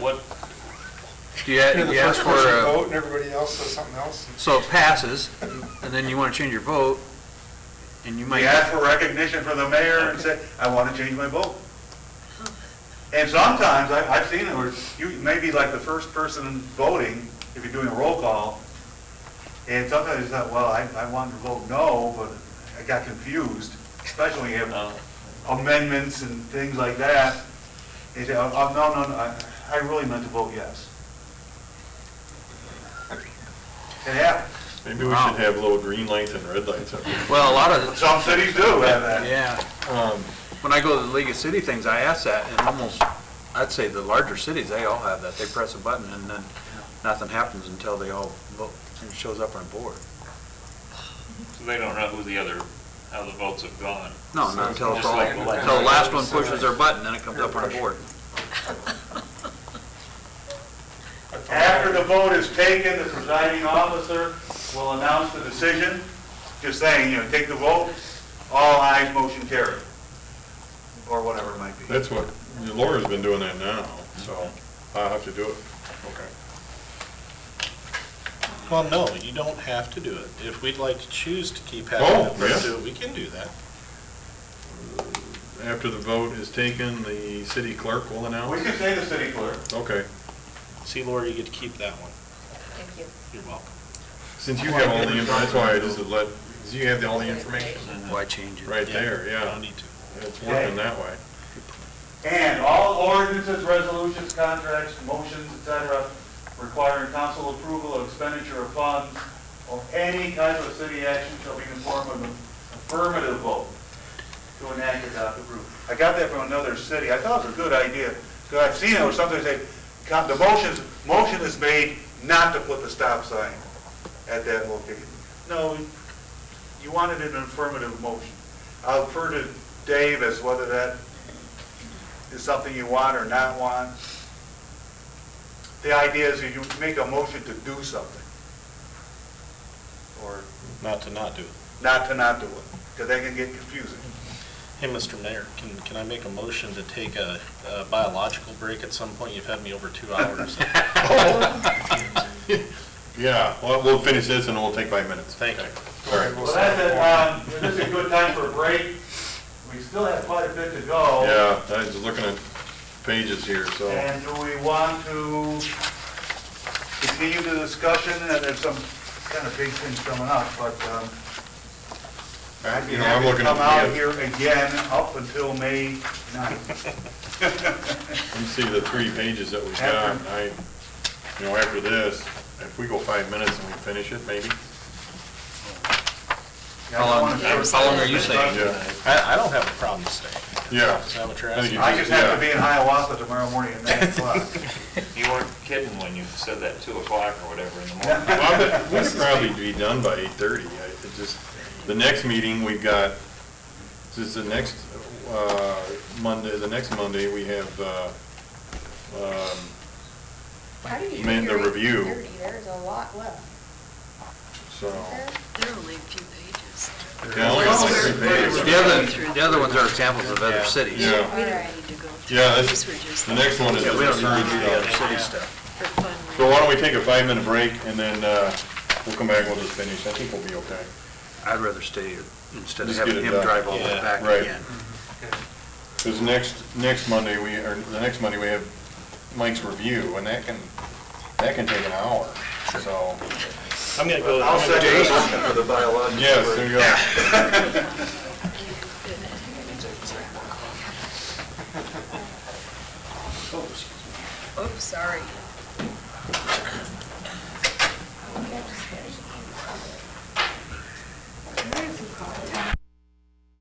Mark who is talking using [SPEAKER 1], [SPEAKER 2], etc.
[SPEAKER 1] What,
[SPEAKER 2] Do you, do you ask for, uh, a-
[SPEAKER 3] Vote and everybody else says something else.
[SPEAKER 2] so it passes, and then you want to change your vote, and you
[SPEAKER 4] We
[SPEAKER 2] might,
[SPEAKER 4] ask for recognition from the mayor and say, I want to change my vote. And sometimes, I, I've seen it, where you may be like the first person voting, if you're doing a roll call, and sometimes it's not, well, I, I wanted to vote no, but I got confused, especially if
[SPEAKER 1] no,
[SPEAKER 4] amendments and things like that. And you say, oh, oh, no, no, no, I, I really meant to vote yes. It happens.
[SPEAKER 5] Maybe we should
[SPEAKER 2] Wow.
[SPEAKER 5] have little green lights and red lights up there.
[SPEAKER 2] well, a lot of,
[SPEAKER 4] Some cities do have that.
[SPEAKER 2] yeah.
[SPEAKER 5] Um,
[SPEAKER 2] When I go to the League of City things, I ask that, and almost, I'd say the larger cities, they all have that. They press a button, and then nothing happens until they all vote, and it shows up on a board.
[SPEAKER 1] so they don't know who the other, how the votes have gone.
[SPEAKER 2] No, not until it's
[SPEAKER 1] Just
[SPEAKER 2] all,
[SPEAKER 1] like the
[SPEAKER 2] until the last one pushes their button, then it comes up on a board.
[SPEAKER 4] After the vote is taken, the presiding officer will announce the decision, just saying, you know, take the vote, all ayes, motion carried, or whatever it might be.
[SPEAKER 5] That's what, Laura's been doing that now, so
[SPEAKER 4] Mm-hmm.
[SPEAKER 5] I'll have to do it. Okay.
[SPEAKER 6] Well, no, you don't have to do it. If we'd like to choose to keep
[SPEAKER 5] Oh,
[SPEAKER 6] having the
[SPEAKER 5] yeah.
[SPEAKER 6] person do it, we can do that.
[SPEAKER 5] After the vote is taken, the city clerk will
[SPEAKER 4] We
[SPEAKER 5] announce?
[SPEAKER 4] can say the city clerk.
[SPEAKER 5] Okay.
[SPEAKER 6] See, Laura, you get to keep that one.
[SPEAKER 7] Thank you.
[SPEAKER 6] You're welcome.
[SPEAKER 5] Since you have all the, info- that's why I just let, 'cause you have all the information
[SPEAKER 2] Why change it?
[SPEAKER 5] right
[SPEAKER 6] Yeah,
[SPEAKER 5] there,
[SPEAKER 6] you Don't
[SPEAKER 5] yeah.
[SPEAKER 6] need to.
[SPEAKER 5] It's working that way.
[SPEAKER 4] And all ordinances, resolutions, contracts, motions, et cetera, requiring council approval of expenditure of funds or any kind of city action shall be in the form of an affirmative vote to enact or adopt the proof. I got that from another city. I thought it was a good idea, because I've seen it where sometimes they, co- the motions, motion is made not to put the stop sign at that location. No, you wanted an affirmative motion. I'll refer to Dave as whether that is something you want or not want. The idea is that you make a motion to do something, or
[SPEAKER 6] Not to not do it.
[SPEAKER 4] not to not do it, because that can get confusing.
[SPEAKER 6] Hey, Mr. Mayor, can, can I make a motion to take a a biological break at some point? You've had me over two hours.
[SPEAKER 5] Yeah, well, we'll finish this and we'll take five minutes.
[SPEAKER 6] Thank you.
[SPEAKER 5] All right.
[SPEAKER 4] Well, that's it, um, this is a good time for a break. We still have quite a bit to go.
[SPEAKER 5] Yeah, I was looking at pages here, so.
[SPEAKER 4] And do we want to continue the discussion, and there's some kind of big things coming up, but, um, I'd be
[SPEAKER 5] You know, I'm
[SPEAKER 4] happy to
[SPEAKER 5] looking at
[SPEAKER 4] come out
[SPEAKER 5] the-
[SPEAKER 4] here again up until May ninth.
[SPEAKER 5] You see the three pages that we got, and I, you know, after this, if we go five minutes and we finish it, maybe?
[SPEAKER 4] Yeah, I don't
[SPEAKER 2] How long-
[SPEAKER 4] wanna short-
[SPEAKER 2] how long are you saying?
[SPEAKER 5] Yeah,
[SPEAKER 6] I, I don't have a problem staying.
[SPEAKER 5] yeah.
[SPEAKER 6] Is that what you're
[SPEAKER 5] I think
[SPEAKER 6] asking?
[SPEAKER 5] you
[SPEAKER 4] I just have
[SPEAKER 5] yeah.
[SPEAKER 4] to be in Hiawatha tomorrow morning at nine o'clock.
[SPEAKER 1] You weren't kidding when you said that two o'clock or whatever in the morning.
[SPEAKER 5] Well, but We'd probably be done by eight-thirty, I, it just, the next meeting, we've got, this is the next, uh, Monday, the next Monday, we have, uh, um,
[SPEAKER 7] How do you do
[SPEAKER 5] Amend the
[SPEAKER 7] your
[SPEAKER 5] review.
[SPEAKER 7] 8:30? There's a lot left.
[SPEAKER 5] so.
[SPEAKER 8] There are only a few pages.
[SPEAKER 5] Yeah, only like three pages.
[SPEAKER 2] The other, the other ones are examples of other cities.
[SPEAKER 5] Yeah.
[SPEAKER 8] We don't
[SPEAKER 7] Alright.
[SPEAKER 8] need to go through.
[SPEAKER 5] Yeah,
[SPEAKER 8] These
[SPEAKER 5] that's,
[SPEAKER 8] were just
[SPEAKER 5] the next one is
[SPEAKER 2] Yeah,
[SPEAKER 5] just
[SPEAKER 2] we don't need to do the
[SPEAKER 5] the
[SPEAKER 2] other
[SPEAKER 5] first,
[SPEAKER 2] city stuff.
[SPEAKER 8] for fun.
[SPEAKER 5] So why don't we take a five-minute break, and then uh, we'll come back, and we'll just finish, I think we'll be okay.
[SPEAKER 2] I'd rather stay instead of
[SPEAKER 5] Just get
[SPEAKER 2] having
[SPEAKER 5] it
[SPEAKER 2] him
[SPEAKER 5] done.
[SPEAKER 2] drive all the way
[SPEAKER 6] Yeah,
[SPEAKER 2] back
[SPEAKER 5] right.
[SPEAKER 2] again.
[SPEAKER 5] Because next, next Monday, we, or the next Monday, we have Mike's review, and that can, that can take an hour, so.
[SPEAKER 6] I'm gonna go.
[SPEAKER 4] I'll
[SPEAKER 6] I'm gonna-
[SPEAKER 4] second the motion for the biological.
[SPEAKER 5] Yes, there you go.
[SPEAKER 8] Oops, sorry.